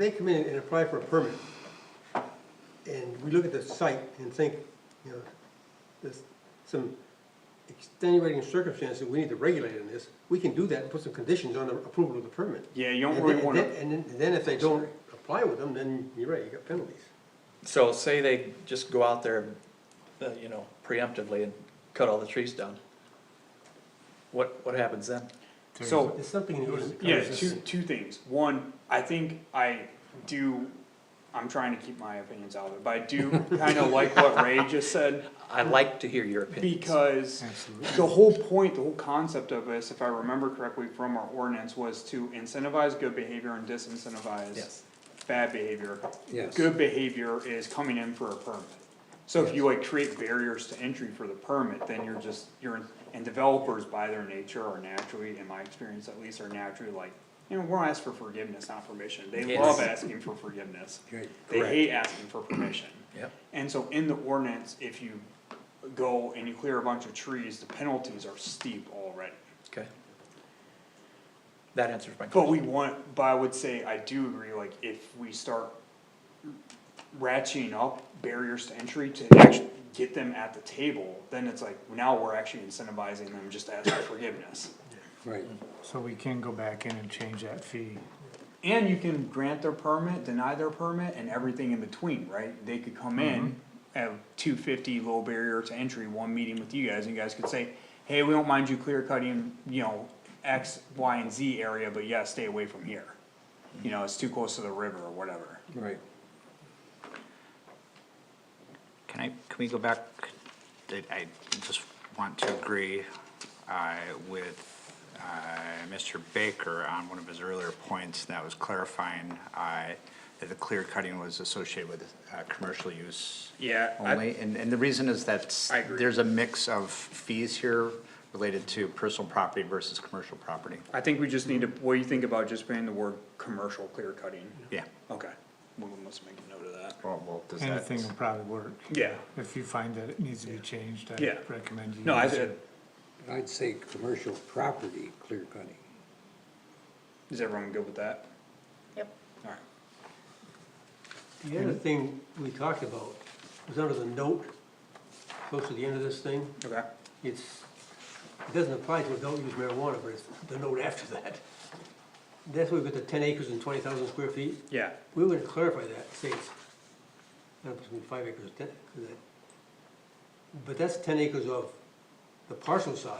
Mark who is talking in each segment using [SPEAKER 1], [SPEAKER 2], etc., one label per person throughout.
[SPEAKER 1] They come in and apply for a permit, and we look at the site and think, you know, there's some extenuating circumstances we need to regulate in this, we can do that and put some conditions on the approval of the permit.
[SPEAKER 2] Yeah, you don't
[SPEAKER 1] And
[SPEAKER 2] really
[SPEAKER 1] then-
[SPEAKER 2] wanna-
[SPEAKER 1] And then, and then if they don't apply with them, then you're right, you got penalties.
[SPEAKER 3] So say they just go out there, uh, you know, preemptively and cut all the trees down. What, what happens then?
[SPEAKER 2] So,
[SPEAKER 1] It's something in the ordinance. that
[SPEAKER 2] yeah,
[SPEAKER 1] covers
[SPEAKER 2] two,
[SPEAKER 1] this.
[SPEAKER 2] two things. One, I think I do, I'm trying to keep my opinions out of it, but I do kinda like what Ray just said.
[SPEAKER 3] I'd like to hear your opinion.
[SPEAKER 2] Because the whole point, the whole concept of this, if I remember correctly from our ordinance, was to incentivize good behavior and disincentivize
[SPEAKER 3] Yes.
[SPEAKER 2] bad behavior.
[SPEAKER 4] Yes.
[SPEAKER 2] Good behavior is coming in for a permit. So if you like create barriers to entry for the permit, then you're just, you're, and developers by their nature are naturally, in my experience at least, are naturally like, you know, we'll ask for forgiveness, not permission. They
[SPEAKER 3] Yes.
[SPEAKER 2] love asking for forgiveness.
[SPEAKER 4] Right,
[SPEAKER 2] They
[SPEAKER 4] correct.
[SPEAKER 2] hate asking for permission.
[SPEAKER 3] Yep,
[SPEAKER 2] And so in the ordinance, if you go and you clear a bunch of trees, the penalties are steep already.
[SPEAKER 3] okay. That answers my
[SPEAKER 2] But
[SPEAKER 3] question.
[SPEAKER 2] we want, but I would say, I do agree, like, if we start ratcheting up barriers to entry to actually get them at the table, then it's like, now we're actually incentivizing them just to ask for forgiveness.
[SPEAKER 4] right.
[SPEAKER 5] So we can go back in and change that fee.
[SPEAKER 2] And you can grant their permit, deny their permit, and everything in between, right? They could come in, have two fifty low barrier to entry, one meeting with you guys, and you guys could say, hey, we don't mind you clear cutting, you know, X, Y, and Z area, but yeah, stay away from here. You know, it's too close to the river or whatever.
[SPEAKER 4] Right.
[SPEAKER 6] Can I, can we go back, I, I just want to agree, uh, with, uh, Mr. Baker on one of his earlier points that was clarifying, uh, that the clear cutting was associated with, uh, commercial use.
[SPEAKER 2] Yeah, I-
[SPEAKER 6] Only, and, and the reason is that
[SPEAKER 2] I agree.
[SPEAKER 6] there's a mix of fees here related to personal property versus commercial property.
[SPEAKER 2] I think we just need to, what do you think about just banning the word commercial clear cutting?
[SPEAKER 6] Yeah,
[SPEAKER 2] Okay, we must make a note of that.
[SPEAKER 6] well, well, does that?
[SPEAKER 5] Anything will probably work.
[SPEAKER 2] Yeah,
[SPEAKER 5] If you find that it needs to be changed,
[SPEAKER 2] Yeah.
[SPEAKER 5] I recommend you.
[SPEAKER 2] no, I
[SPEAKER 5] use
[SPEAKER 2] said,
[SPEAKER 5] it.
[SPEAKER 4] I'd say commercial property clear cutting.
[SPEAKER 2] is everyone good with that?
[SPEAKER 7] Yep.
[SPEAKER 2] Alright.
[SPEAKER 1] The other thing we talked about was under the note, close to the end of this thing,
[SPEAKER 2] Okay.
[SPEAKER 1] it's, it doesn't apply to adult use marijuana, but it's the note after that. That's where we got the ten acres and twenty thousand square feet.
[SPEAKER 2] Yeah.
[SPEAKER 1] We would clarify that, say it's, I don't know, if it's gonna be five acres, or ten, or that. But that's ten acres of the parcel size,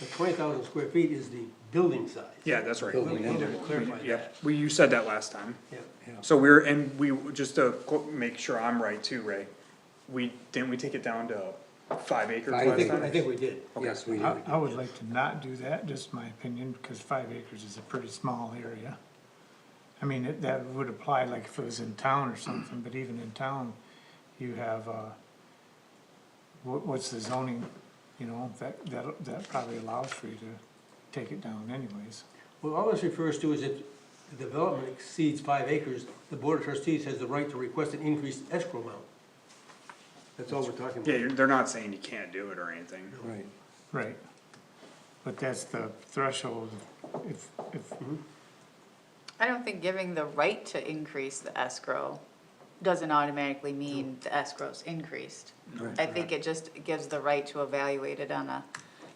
[SPEAKER 1] the twenty thousand square feet is the building size.
[SPEAKER 2] Yeah, that's right.
[SPEAKER 1] We would we would clarify
[SPEAKER 2] Yeah,
[SPEAKER 1] that,
[SPEAKER 2] we, you said that last time.
[SPEAKER 1] yeah.
[SPEAKER 2] So we're, and we, just to qu- make sure I'm right too, Ray, we, didn't we take it down to five acres
[SPEAKER 4] Five
[SPEAKER 2] last
[SPEAKER 4] acres.
[SPEAKER 1] I
[SPEAKER 2] time?
[SPEAKER 1] think we did.
[SPEAKER 4] Yes, we
[SPEAKER 5] I,
[SPEAKER 4] do.
[SPEAKER 5] I would like to not do that, just my opinion, because five acres is a pretty small area. I mean, it, that would apply like if it was in town or something, but even in town, you have, uh, what, what's the zoning, you know, that, that, that probably allows for you to take it down anyways.
[SPEAKER 1] Well, all this refers to is if the development exceeds five acres, the board of trustees has the right to request an increased escrow amount. That's all we're talking
[SPEAKER 2] Yeah,
[SPEAKER 1] about.
[SPEAKER 2] you're- they're not saying you can't do it or anything.
[SPEAKER 4] Right.
[SPEAKER 5] Right, but that's the threshold, if, if,
[SPEAKER 7] I don't think giving the right to increase the escrow doesn't automatically mean the escrow's increased. I think it just gives the right to evaluate it on a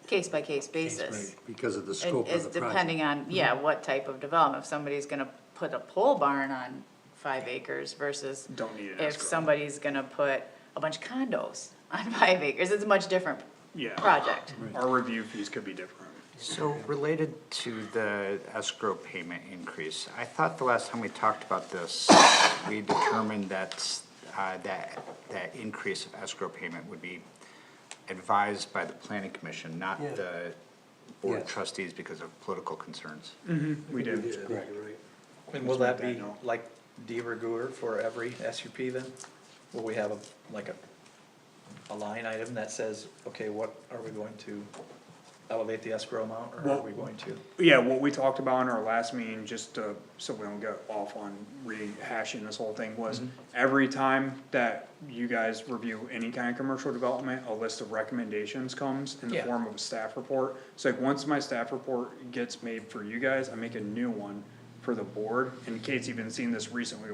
[SPEAKER 7] case-by-case basis.
[SPEAKER 4] Because of the
[SPEAKER 7] And
[SPEAKER 4] scope
[SPEAKER 7] is
[SPEAKER 4] of the
[SPEAKER 7] depending
[SPEAKER 4] project. Mm-hmm.
[SPEAKER 7] on, yeah, what type of development, if somebody's gonna put a pole barn on five acres versus
[SPEAKER 2] Don't need an
[SPEAKER 7] if
[SPEAKER 2] escrow.
[SPEAKER 7] somebody's gonna put a bunch of condos on five acres, it's a much different
[SPEAKER 2] Yeah.
[SPEAKER 7] project.
[SPEAKER 2] Our review fees could be different.
[SPEAKER 6] So related to the escrow payment increase, I thought the last time we talked about this, we determined that, uh, that, that increase of escrow payment would be advised by the planning commission, not
[SPEAKER 1] Yeah.
[SPEAKER 6] the board of
[SPEAKER 4] Yes.
[SPEAKER 6] trustees because of political concerns.
[SPEAKER 2] We did.
[SPEAKER 1] I think
[SPEAKER 4] Right.
[SPEAKER 1] you're right.
[SPEAKER 3] And will that
[SPEAKER 2] that
[SPEAKER 3] be
[SPEAKER 2] note.
[SPEAKER 3] like de rigueur for every SUP then? Will we have a, like a, a line item that says, okay, what are we going to elevate the escrow amount, or are
[SPEAKER 2] Well-
[SPEAKER 3] we going to?
[SPEAKER 2] Yeah, what we talked about in our last meeting, just to, so we don't go off on rehashing this whole thing, was every time that you guys review any kind of commercial development, a list of recommendations comes in the
[SPEAKER 3] Yeah.
[SPEAKER 2] form of a staff report. So like, once my staff report gets made for you guys, I make a new one for the board. And Kate's even seen this recently